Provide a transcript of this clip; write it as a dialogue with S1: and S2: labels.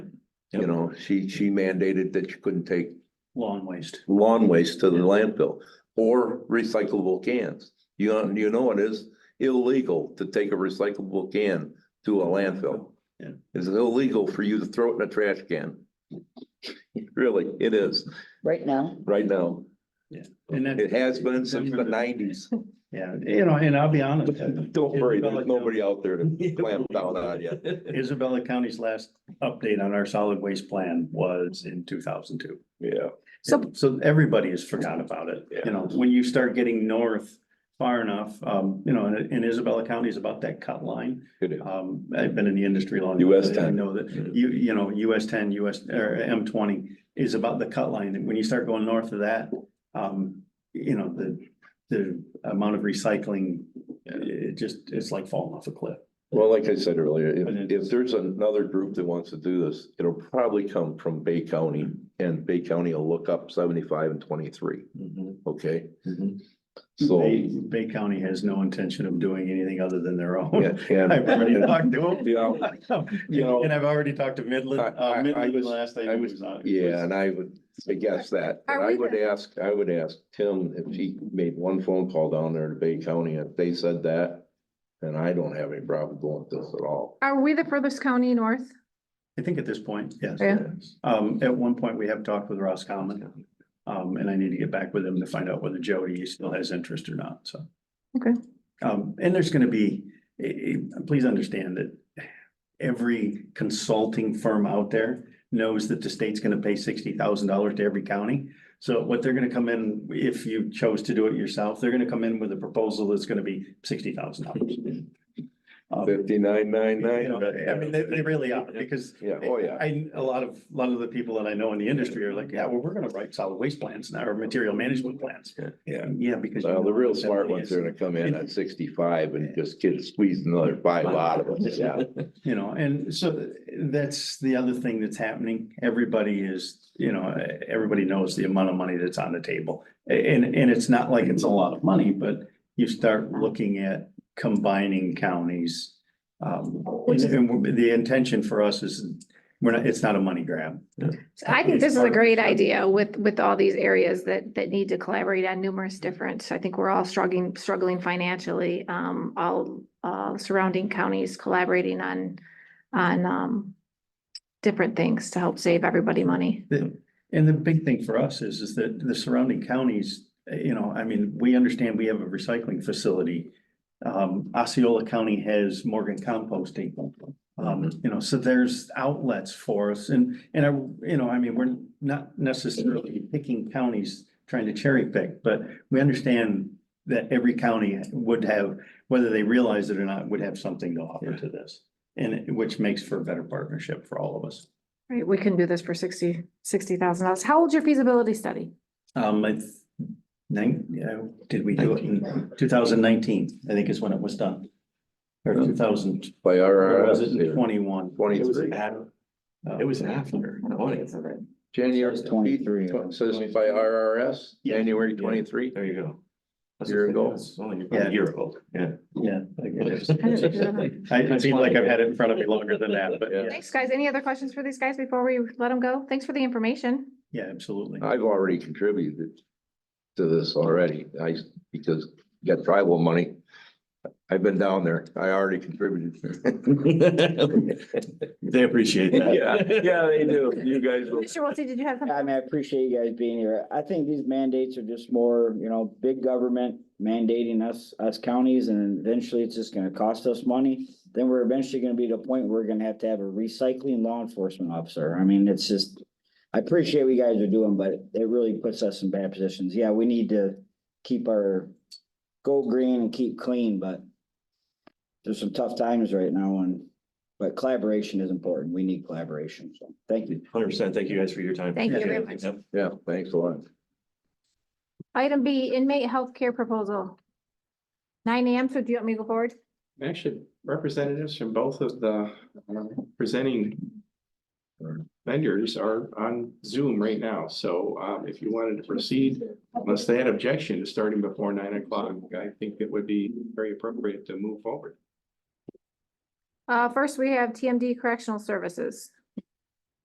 S1: You know, she, she mandated that you couldn't take
S2: Lawn waste.
S1: lawn waste to the landfill or recyclable cans. You know, you know it is illegal to take a recyclable can to a landfill.
S2: Yeah.
S1: It's illegal for you to throw it in a trash can. Really, it is
S3: right now.
S1: right now.
S2: And that,
S1: It has been since the nineties.
S2: yeah, you know, and I'll be honest. uh,
S1: Don't worry, there's nobody out there to clamp down on you.
S2: Isabella County's last update on our solid waste plan was in two thousand two.
S1: Yeah.
S3: So,
S2: So everybody has forgot about it, you know, when you start getting north far enough, um, you know, and, and Isabella County is about that cut line.
S1: It is.
S2: Um, I've been in the industry long.
S1: US
S2: enough that I
S1: 10.
S2: Know that, you, you know, US ten, US, or M twenty is about the cut line, and when you start going north of that, um, you know, the, the amount of recycling, it just, it's like falling off a cliff.
S1: Well, like I said earlier, if, if there's another group that wants to do this, it'll probably come from Bay County. And Bay County will look up seventy-five and twenty-three, okay? So,
S2: Bay, Bay County has no intention of doing anything other than their own.
S1: yeah, and,
S2: I've already talked to
S1: yeah,
S2: them.
S1: You know-
S2: And I've already talked to Midland,
S1: I- I- I
S2: uh, Midland
S1: was-
S2: last night.
S1: I was- yeah, and I would, I guess that, but
S3: Are
S1: I
S3: we
S1: would
S3: the-
S1: ask, I would ask Tim if he made one phone call down there to Bay County, if they said that. And I don't have any problem going with this at all.
S4: Are we the furthest county north?
S2: I think at this point, yes.
S4: Yeah.
S2: Um, at one point, we have talked with Ross Common. Um, and I need to get back with him to find out whether Jody still has interest or not, so.
S4: Okay.
S2: Um, and there's gonna be, eh, eh, please understand that every consulting firm out there knows that the state's gonna pay sixty thousand dollars to every county. So what they're gonna come in, if you chose to do it yourself, they're gonna come in with a proposal that's gonna be sixty thousand dollars. Um,
S1: Fifty-nine, nine,
S2: I mean, they, they
S1: nine.
S2: really are, because
S1: Yeah, oh, yeah.
S2: I, a lot of, a lot of the people that I know in the industry are like, yeah, well, we're gonna write solid waste plans now, or material management plans.
S1: Yeah.
S2: Yeah, because. you
S1: Well, the
S2: know
S1: real
S2: what that
S1: smart ones
S2: is,
S1: are gonna come in at sixty-five and just get squeezed another five out of us, yeah.
S2: You know, and so that's the other thing that's happening. Everybody is, you know, everybody knows the amount of money that's on the table. And, and it's not like it's a lot of money, but you start looking at combining counties. Um, and and the intention for us is, we're not, it's not a money grab.
S4: So I think this is a great idea with, with all these areas that, that need to collaborate on numerous different, I think we're all struggling, struggling financially. Um, all, uh, surrounding counties collaborating on, on, um, different things to help save everybody money.
S2: And the big thing for us is, is that the surrounding counties, eh, you know, I mean, we understand we have a recycling facility. Um, Osceola County has Morgan composting. Um, you know, so there's outlets for us and, and I, you know, I mean, we're not necessarily picking counties trying to cherry pick, but we understand that every county would have, whether they realize it or not, would have something to offer to this. And it- which makes for a better partnership for all of us.
S4: Right, we can do this for sixty, sixty thousand dollars. How old's your feasibility study?
S2: Um, it's nine, you know, did we do it in two thousand nineteen, I think is when it was done. Or two thousand,
S1: By
S2: or
S1: our.
S2: was it Oh, twenty-one?
S5: It was
S1: Twenty-three.
S5: after, it was after,
S4: I don't think
S5: twenty,
S4: it's of it.
S1: January
S5: Says 23.
S1: tw- Says by RRS,
S2: Yeah.
S1: January
S5: Yeah.
S1: twenty-three.
S5: there you go. That's
S1: Year
S5: okay,
S1: ago.
S5: it's Only
S2: Yeah.
S5: about a year ago, yeah.
S2: Yeah. I guess.
S4: I didn't do that.
S2: I, I feel like I've had it in front of me longer than that, but yeah,
S4: Thanks, guys. Any other questions for these guys before we let them go? Thanks for the information.
S2: yeah, absolutely.
S1: I've already contributed to this already. I, because you got tribal money. I've been down there. I already contributed.
S5: They appreciate
S1: yeah, they do. You guys
S4: Mr. Wiltie, did you have something?
S3: I mean, I appreciate you guys being here. I think these mandates are just more, you know, big government mandating us, us counties, and eventually it's just gonna cost us money. Then we're eventually gonna be to a point where we're gonna have to have a recycling law enforcement officer. I mean, it's just, I appreciate what you guys are doing, but it really puts us in bad positions. Yeah, we need to keep our, go green and keep clean, but there's some tough times right now and, but collaboration is important. We need collaboration, so thank you.
S5: Hundred percent, thank you guys for your time.
S4: Thank
S2: you
S5: Appreciate
S4: very much.
S5: it. Yep.
S1: Yeah, thanks a lot.
S4: Item B, inmate healthcare proposal. Nine AM, so do you want me to go forward?
S6: Actually, representatives from both of the uh, presenting vendors are on Zoom right now, so um, if you wanted to proceed, unless they had objection to starting before nine o'clock, I think it would be very appropriate to move forward.
S4: Uh, first, we have TMD Correctional Services.